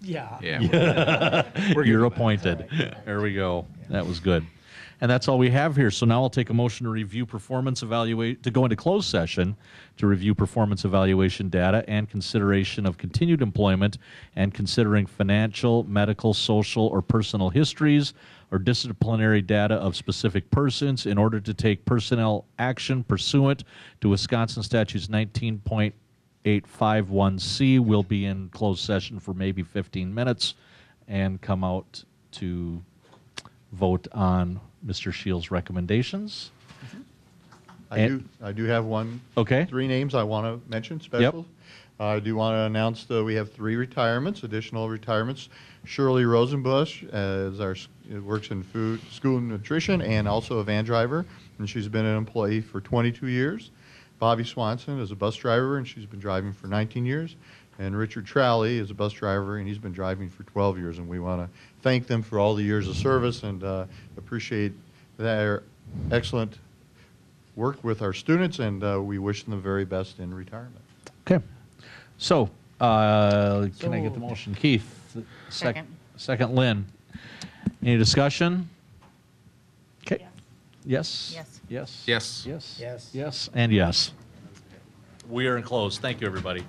Yeah. Yeah. You're appointed. There we go. That was good. And that's all we have here. So now I'll take a motion to review performance evaluate, to go into closed session to review performance evaluation data and consideration of continued employment and considering financial, medical, social, or personal histories or disciplinary data of specific persons in order to take personnel action pursuant to Wisconsin statutes 19.851C. We'll be in closed session for maybe 15 minutes and come out to vote on Mr. Shields' recommendations. I do, I do have one. Okay. Three names I want to mention, special. I do want to announce that we have three retirements, additional retirements. Shirley Rosenbush as our, s- works in food, school nutrition, and also a van driver, and she's been an employee for 22 years. Bobby Swanson is a bus driver, and she's been driving for 19 years. And Richard Trowley is a bus driver, and he's been driving for 12 years, and we want to thank them for all the years of service and uh, appreciate their excellent work with our students, and uh, we wish them the very best in retirement. Okay. So, uh, can So I get the moved. motion? Keith? sec- Second. Second, Lynn. Any discussion? Okay. Yes. Yes? Yes. Yes? Yes. Yes? Yes. Yes, and yes. We are enclosed. Thank you, everybody.